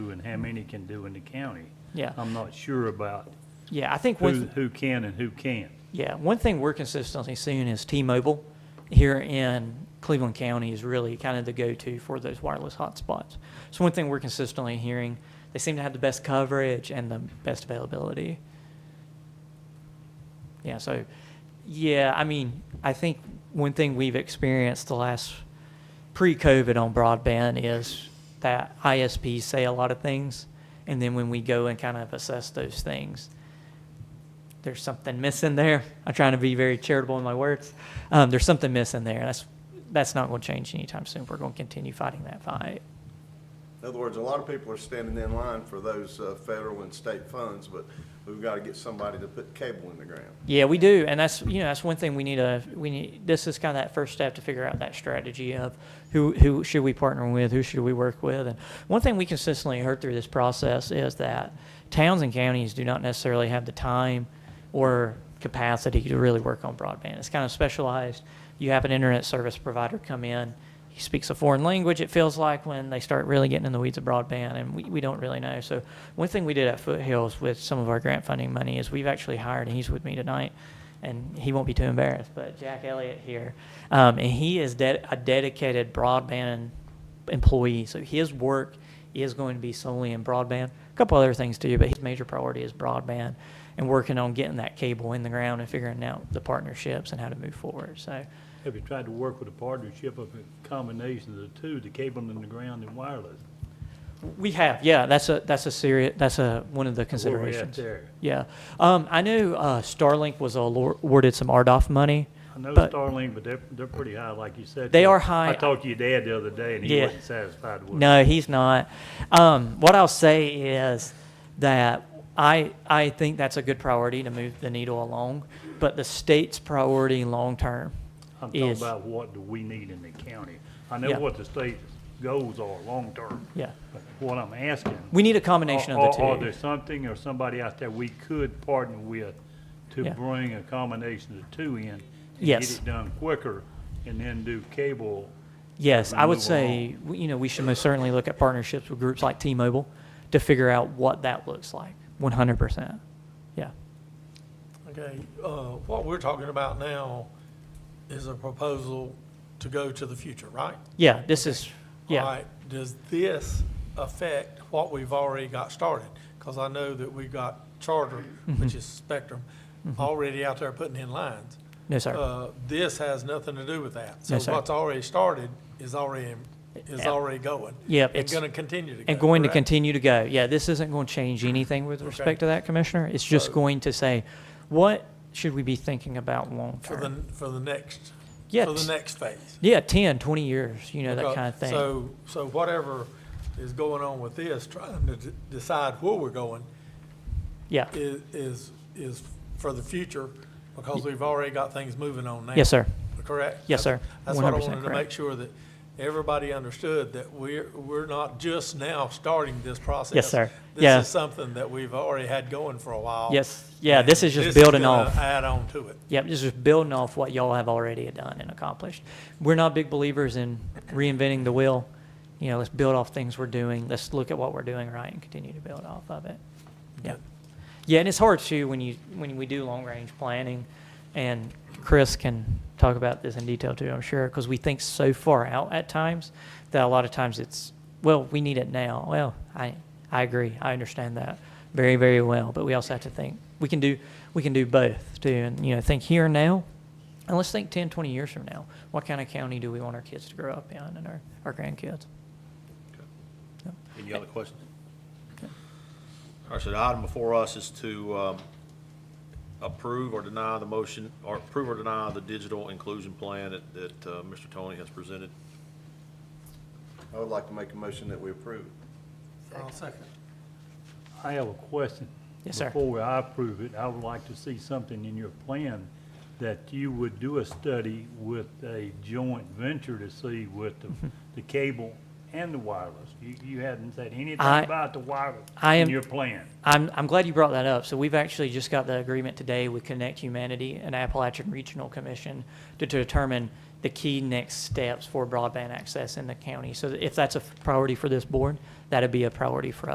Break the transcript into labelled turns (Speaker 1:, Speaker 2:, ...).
Speaker 1: do and how many can do in the county.
Speaker 2: Yeah.
Speaker 1: I'm not sure about
Speaker 2: Yeah, I think
Speaker 1: who,
Speaker 2: one,
Speaker 1: who can and who can't.
Speaker 2: yeah, one thing we're consistently seeing is T-Mobile here in Cleveland County is really kind of the go-to for those wireless hotspots. So one thing we're consistently hearing, they seem to have the best coverage and the best availability. Yeah, so, yeah, I mean, I think one thing we've experienced the last pre-COVID on broadband is that ISPs say a lot of things, and then when we go and kind of assess those things, there's something missing there. I'm trying to be very charitable in my words. Um, there's something missing there. That's that's not going to change anytime soon. We're going to continue fighting that fight.
Speaker 3: In other words, a lot of people are standing in line for those uh, federal and state funds, but we've got to get somebody to put cable in the ground.
Speaker 2: Yeah, we do, and that's you know that's one thing we need to we need. This is kind of that first step to figure out that strategy of who who should we partner with, who should we work with, and one thing we consistently heard through this process is that towns and counties do not necessarily have the time or capacity to really work on broadband. It's kind of specialized. You have an internet service provider come in. He speaks a foreign language, it feels like, when they start really getting in the weeds of broadband, and we, we don't really know. So, one thing we did at Foothills with some of our grant funding money is we've actually hired, and he's with me tonight, and he won't be too embarrassed, but Jack Elliott here. Um, and he is de- a dedicated broadband employee. So, his work is going to be solely in broadband. A couple other things too, but his major priority is broadband and working on getting that cable in the ground and figuring out the partnerships and how to move forward. So,
Speaker 1: Have you tried to work with a partnership of a combination of the two, the cable in the ground and wireless?
Speaker 2: We have, yeah. That's a that's a serious that's a one of the
Speaker 1: Where we at
Speaker 2: considerations.
Speaker 1: there?
Speaker 2: Yeah, um, I knew uh, Starlink was awar- awarded some RDOF money.
Speaker 1: I know
Speaker 2: But-
Speaker 1: Starlink, but they're, they're pretty high, like you said.
Speaker 2: They
Speaker 1: Joe.
Speaker 2: are high.
Speaker 1: I talked to your dad the other day, and he
Speaker 2: Yeah.
Speaker 1: wasn't satisfied with it.
Speaker 2: No, he's not. Um, what I'll say is that I I think that's a good priority to move the needle along, but the state's priority long term
Speaker 1: I'm talking
Speaker 2: is
Speaker 1: about what do we need in the county? I
Speaker 2: Yeah.
Speaker 1: know what the state's goals are, long-term.
Speaker 2: yeah.
Speaker 1: But What I'm asking.
Speaker 2: We need a combination
Speaker 1: are-
Speaker 2: of the two.
Speaker 1: Are are there something or somebody out there we could partner with to
Speaker 2: Yeah.
Speaker 1: bring a combination of the two in? and
Speaker 2: Yes.
Speaker 1: Get it done quicker and then do cable.
Speaker 2: Yes, I would
Speaker 1: move
Speaker 2: say, we- you know, we should most certainly look at partnerships with groups like T-Mobile to figure out what that looks like, 100%. Yeah.
Speaker 4: Okay, uh, what we're talking about now is a proposal to go to the future, right?
Speaker 2: Yeah, this is,
Speaker 4: All
Speaker 2: yeah,
Speaker 4: right, does this affect what we've already got started? Because I know that we've got Charter,
Speaker 2: Mm-hmm.
Speaker 4: which is Spectrum, already out there putting in lines.
Speaker 2: no, Mm-hmm. sir.
Speaker 4: Uh, This has nothing to do with that.
Speaker 2: No,
Speaker 4: So
Speaker 2: sir.
Speaker 4: what's already started is already, is
Speaker 2: Yeah.
Speaker 4: already going.
Speaker 2: Yep,
Speaker 4: And
Speaker 2: it's-
Speaker 4: going to continue to go.
Speaker 2: And going to
Speaker 4: correct?
Speaker 2: continue to go. Yeah, this isn't going to change anything with respect to that, Commissioner. It's just
Speaker 4: So-
Speaker 2: going to say, what should we be thinking about
Speaker 4: For
Speaker 2: long-term?
Speaker 4: the, for the next,
Speaker 2: Yeah,
Speaker 4: for the
Speaker 2: t-
Speaker 4: next phase.
Speaker 2: Yeah, 10, 20 years, you know, that
Speaker 4: Because-
Speaker 2: kind of thing.
Speaker 4: So, so whatever is going on with this, trying to d- decide where we're going
Speaker 2: Yeah.
Speaker 4: is, is, is for the future because we've already got things moving on now.
Speaker 2: Yes, sir.
Speaker 4: Correct?
Speaker 2: Yes,
Speaker 4: That's-
Speaker 2: sir.
Speaker 4: That's what I
Speaker 2: 100%
Speaker 4: wanted to
Speaker 2: correct.
Speaker 4: make sure that everybody understood that we're, we're not just now starting this process.
Speaker 2: sir. Yeah.
Speaker 4: This is something that we've already had going for a while.
Speaker 2: Yes, yeah, this
Speaker 4: and
Speaker 2: is just building
Speaker 4: gonna
Speaker 2: off.
Speaker 4: Add on to it.
Speaker 2: Yep, just just building off what y'all have already done and accomplished. We're not big believers in reinventing the wheel. You know, let's build off things we're doing. Let's look at what we're doing right and continue to build off of it. Yeah. Yeah, and it's hard too when you when we do long range planning, and Chris can talk about this in detail too. I'm sure because we think so far out at times that a lot of times it's well we need it now. Well, I I agree. I understand that very very well, but we also have to think we can do we can do both too, and you know think here and now. And let's think 10, 20 years from now. What kind of county do we want our kids to grow up in and our, our grandkids?
Speaker 5: Any other questions? All right, so the item before us is to um, approve or deny the motion, or approve or deny the digital inclusion plan that, that uh, Mr. Tony has presented.
Speaker 3: I would like to make a motion that we approve.
Speaker 4: I'll second.
Speaker 1: I have a question.
Speaker 2: Yes, sir.
Speaker 1: Before I approve it, I would like to see something in your plan that you would do a study with a joint venture to see with the,
Speaker 2: Mm-hmm.
Speaker 1: the cable and the wireless. You, you hadn't said anything
Speaker 2: I-
Speaker 1: about the wireless
Speaker 2: I
Speaker 1: in
Speaker 2: am-
Speaker 1: your plan.
Speaker 2: I'm, I'm glad you brought that up. So we've actually just got the agreement today with Connect Humanity and Appalachian Regional Commission to determine the key next steps for broadband access in the county. So if that's a priority for this board, that'd be a priority for us.